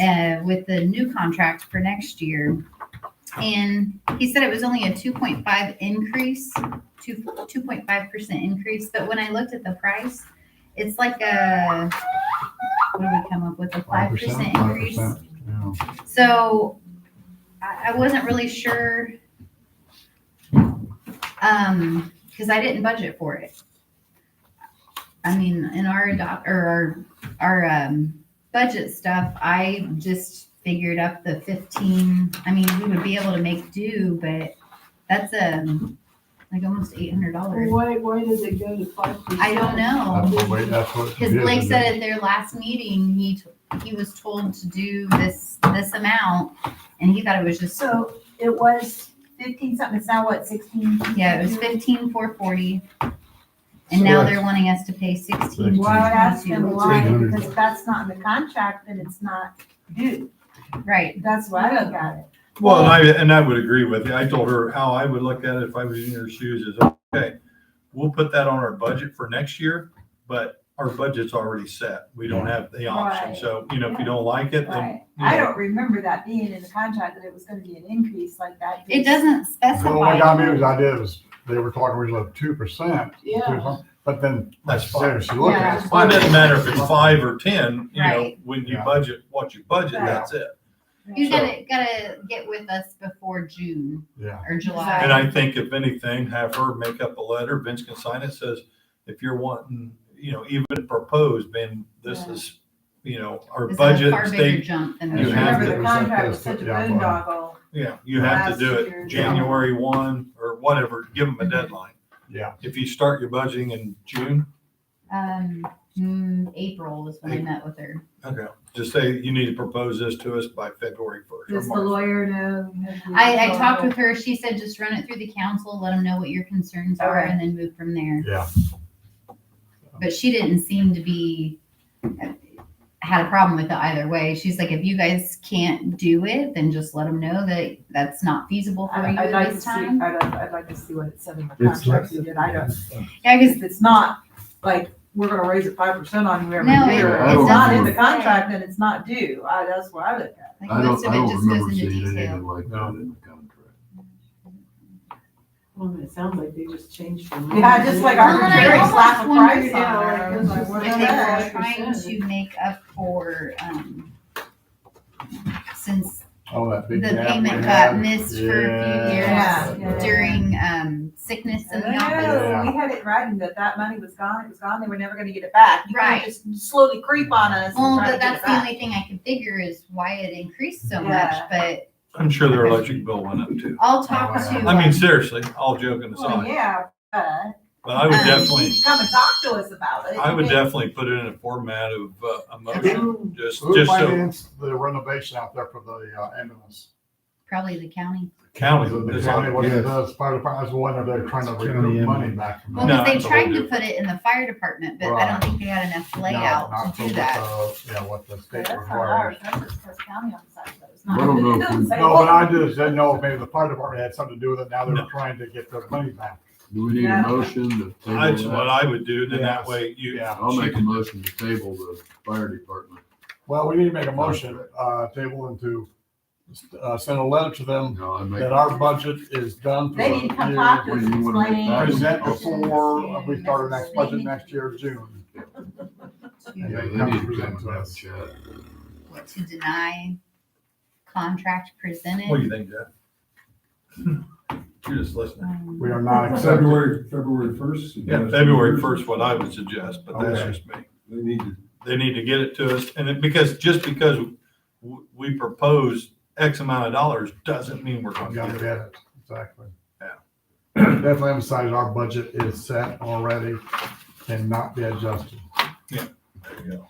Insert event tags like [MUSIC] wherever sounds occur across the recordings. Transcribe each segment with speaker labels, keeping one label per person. Speaker 1: uh, with the new contract for next year. And he said it was only a two point five increase, two, two point five percent increase, but when I looked at the price, it's like a, what did we come up with, a five percent increase?
Speaker 2: 5%, yeah.
Speaker 1: So I, I wasn't really sure. Um, cause I didn't budget for it. I mean, in our adopt, or our, our, um, budget stuff, I just figured up the fifteen, I mean, we would be able to make do, but that's, um, like almost eight hundred dollars.
Speaker 3: Why, why does it go to five percent?
Speaker 1: I don't know.
Speaker 2: That's what, we- that's what. it
Speaker 1: Cause
Speaker 2: is,
Speaker 1: Blake
Speaker 2: isn't
Speaker 1: said
Speaker 2: it?
Speaker 1: at their last meeting, he, t- he was told to do this, this amount, and he thought it was just
Speaker 4: So it was fifteen something, it's now what, sixteen?
Speaker 1: Yeah, it was fifteen four forty, and now they're wanting us to pay sixteen.
Speaker 4: Well, I asked him why,
Speaker 2: 800.
Speaker 4: because if that's not in the contract, then it's not due.
Speaker 1: Right,
Speaker 4: That's why I got it.
Speaker 5: Well, and I, and I would agree with you. I told her how I would look at it if I was in your shoes is, okay, we'll put that on our budget for next year, but our budget's already set. We don't have the option.
Speaker 4: Right.
Speaker 5: So, you know, if you don't like it, then.
Speaker 4: Right.
Speaker 5: you
Speaker 4: I
Speaker 5: know,
Speaker 4: don't remember that being in the contract, that it was gonna be an increase like that.
Speaker 1: it doesn't
Speaker 2: Well, What got me was
Speaker 1: specify.
Speaker 2: I did was, they were talking originally of two percent.
Speaker 3: Yeah.
Speaker 2: But then,
Speaker 5: That's
Speaker 2: that's
Speaker 5: fine.
Speaker 2: serious, you look
Speaker 4: Yeah.
Speaker 2: at it.
Speaker 5: Well, it doesn't matter if it's five or ten, you know,
Speaker 1: Right.
Speaker 5: when you
Speaker 2: Yeah.
Speaker 5: budget what you budget,
Speaker 4: Right.
Speaker 5: that's it.
Speaker 1: You gotta, gotta get with us before June
Speaker 2: Yeah,
Speaker 1: or
Speaker 5: And
Speaker 1: July.
Speaker 5: I think if anything, have her make up a letter, Vince can sign it, says, if you're wanting, you know, even proposed, Ben, this
Speaker 4: Yeah.
Speaker 5: is, you know, our
Speaker 1: This is a
Speaker 5: budget
Speaker 1: far bigger
Speaker 5: state
Speaker 1: jump than
Speaker 4: I
Speaker 1: we
Speaker 5: You have
Speaker 4: remember
Speaker 5: to-
Speaker 4: the contract was such a
Speaker 2: Yeah.
Speaker 4: boondoggle.
Speaker 5: Yeah, you have
Speaker 4: Last
Speaker 5: to do
Speaker 4: year.
Speaker 5: it January one or whatever, give them a deadline.
Speaker 2: yeah.
Speaker 5: If you start your budgeting in June,
Speaker 1: Um, mm, April was when I met with her.
Speaker 5: okay, just say you need to propose this to us by February first.
Speaker 4: Does the lawyer know?
Speaker 1: I, I talked with her, she said just run it through the council, let them know what your concerns are,
Speaker 4: Okay.
Speaker 1: and then move from there.
Speaker 2: Yeah.
Speaker 1: But she didn't seem to be, had a problem with it either way. She's like, if you guys can't do it, then just let them know that that's not feasible for you
Speaker 3: I- I'd
Speaker 1: at
Speaker 3: like to
Speaker 1: this
Speaker 3: see,
Speaker 1: time.
Speaker 3: I'd, I'd like to see what it said in the
Speaker 6: It's
Speaker 3: contract, so that I don't,
Speaker 1: Yeah, because
Speaker 4: If it's not, like, we're gonna raise it five percent on you every
Speaker 1: No,
Speaker 4: year,
Speaker 2: it-
Speaker 4: if it's
Speaker 2: it's
Speaker 4: not in
Speaker 2: not.
Speaker 4: the contract, then it's not due, I, that's where I look at
Speaker 1: like,
Speaker 6: I
Speaker 1: most
Speaker 6: don't,
Speaker 1: of
Speaker 6: I
Speaker 1: it
Speaker 6: don't
Speaker 1: just goes
Speaker 6: remember
Speaker 1: into
Speaker 6: seeing
Speaker 1: detail.
Speaker 6: anything like that in the contract.
Speaker 3: well, it sounds like they just changed. the
Speaker 4: it. Yeah, just like our
Speaker 1: Well, and I
Speaker 4: jury
Speaker 1: almost
Speaker 4: slap a
Speaker 1: wondered,
Speaker 4: price
Speaker 3: yeah, like,
Speaker 4: on there,
Speaker 3: it
Speaker 4: I
Speaker 3: was
Speaker 4: was like, what
Speaker 1: Like
Speaker 4: the
Speaker 1: they were
Speaker 4: heck?
Speaker 1: trying to make up for, um, since
Speaker 2: Oh, that
Speaker 1: the
Speaker 2: big gap.
Speaker 1: payment
Speaker 2: we
Speaker 1: got
Speaker 2: had.
Speaker 1: missed for
Speaker 2: Yeah.
Speaker 1: a few
Speaker 4: Yeah.
Speaker 1: years during, um, sickness in the office.
Speaker 4: No, we had it writing that that money was gone, it was gone, they were never gonna get it back, you
Speaker 1: Right.
Speaker 4: can't just slowly creep on us
Speaker 1: Well,
Speaker 4: and try
Speaker 1: but
Speaker 4: to get it
Speaker 1: that's the
Speaker 4: back.
Speaker 1: only thing I can figure is why it increased so much,
Speaker 4: Yeah.
Speaker 1: but
Speaker 5: I'm sure their electric bill went up too.
Speaker 1: I'll talk
Speaker 2: Oh,
Speaker 1: to.
Speaker 2: yeah.
Speaker 5: I mean,
Speaker 1: um,
Speaker 5: seriously, all joking
Speaker 4: Well,
Speaker 5: aside,
Speaker 4: yeah, Uh, but.
Speaker 5: but I would
Speaker 1: Um,
Speaker 5: definitely,
Speaker 4: Come and talk to us about it.
Speaker 5: I would definitely put it in a format of uh, a motion, just,
Speaker 2: Who
Speaker 5: just so
Speaker 2: financed the renovation out there for the uh, ambulance?
Speaker 1: Probably the county.
Speaker 5: county.
Speaker 2: The
Speaker 5: is
Speaker 2: county,
Speaker 5: on-
Speaker 2: what it
Speaker 6: Yes.
Speaker 2: does, fire department, I was wondering if they're trying to
Speaker 6: County
Speaker 2: recoup money
Speaker 6: ambulance.
Speaker 2: back. from
Speaker 1: Well,
Speaker 2: that.
Speaker 5: No,
Speaker 1: 'cause they
Speaker 5: it's a
Speaker 1: tried to
Speaker 5: little
Speaker 1: put it in the fire department, but I don't
Speaker 2: Right.
Speaker 1: think they had enough
Speaker 2: No,
Speaker 1: layout
Speaker 2: not
Speaker 1: to
Speaker 2: for
Speaker 1: do
Speaker 2: what
Speaker 1: that.
Speaker 2: the- Yeah, what the state
Speaker 4: That's not
Speaker 2: requires.
Speaker 4: ours, that's just Cook County on the side, but it's [LAUGHS]
Speaker 6: I don't know
Speaker 4: not.
Speaker 6: if
Speaker 4: it doesn't
Speaker 6: we-
Speaker 4: say
Speaker 2: No, but I
Speaker 4: what.
Speaker 2: just didn't know if maybe the fire department had something to do with it. Now they're
Speaker 5: No.
Speaker 2: trying to get their money back.
Speaker 6: Do we need
Speaker 4: Yeah.
Speaker 6: a motion to
Speaker 5: That's
Speaker 6: table
Speaker 5: what
Speaker 6: that?
Speaker 5: I would do, then that
Speaker 2: Yes.
Speaker 5: way you.
Speaker 2: Yeah.
Speaker 6: I'll make a motion to table the fire department.
Speaker 2: Well, we need to make a motion, uh, table and to, uh, send a letter to
Speaker 7: Oh.
Speaker 2: them
Speaker 6: No, I make,
Speaker 2: that our budget is done. for
Speaker 4: They
Speaker 2: the
Speaker 4: need to come
Speaker 2: year.
Speaker 4: talk to us
Speaker 6: Well,
Speaker 4: and
Speaker 6: you wanna make
Speaker 4: explain.
Speaker 6: that-
Speaker 2: Present
Speaker 6: Oh,
Speaker 2: before we start our next budget next year, June.
Speaker 6: yeah,
Speaker 2: And
Speaker 6: they
Speaker 2: then
Speaker 6: need
Speaker 2: come present
Speaker 6: to come
Speaker 2: to
Speaker 6: and have a
Speaker 2: us.
Speaker 6: chat.
Speaker 1: What, to deny contract
Speaker 5: What do
Speaker 1: presented?
Speaker 5: you think, Jeff? [LAUGHS] You're just listening.
Speaker 1: Um,
Speaker 2: We are not accepting.
Speaker 7: February, February first?
Speaker 5: Yeah, February first, what I would suggest, but that's
Speaker 2: Okay.
Speaker 5: just me.
Speaker 7: They need to,
Speaker 5: they need to get it to us, and it, because, just because w- we propose X amount of dollars, doesn't mean we're
Speaker 2: We
Speaker 5: gonna
Speaker 2: gotta
Speaker 5: get
Speaker 2: get
Speaker 5: it.
Speaker 2: it, exactly.
Speaker 5: Yeah.
Speaker 2: Definitely emphasize our budget is set already, cannot be adjusted.
Speaker 5: There you go.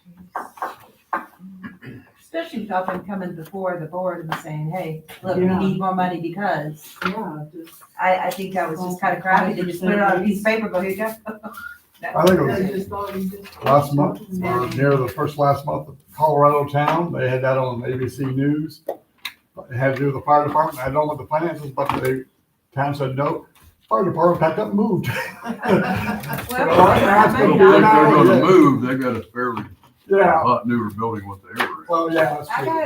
Speaker 4: Especially if I've been coming before the board and saying, hey, look, we
Speaker 3: Yeah.
Speaker 4: need more money because,
Speaker 3: Yeah, just.
Speaker 4: I, I think that was just kind of crappy to just put it on a piece of paper, go, [LAUGHS] here you go.
Speaker 2: I think it was
Speaker 3: I just thought you just-
Speaker 2: last month, or
Speaker 3: Yeah.
Speaker 2: near the first last month, of Colorado town, they had that on ABC News. It had to do with the fire department, I don't know what the finances, but the town said, no, fire department packed up and moved.
Speaker 4: Well,
Speaker 2: Well, I
Speaker 4: I
Speaker 6: I don't think
Speaker 4: mean,
Speaker 6: they're
Speaker 4: I-
Speaker 6: gonna move, they got a fairly
Speaker 2: [LAUGHS] Yeah,
Speaker 6: hot newer building what they were in.
Speaker 2: well, yeah. that's
Speaker 4: I
Speaker 2: true.
Speaker 4: got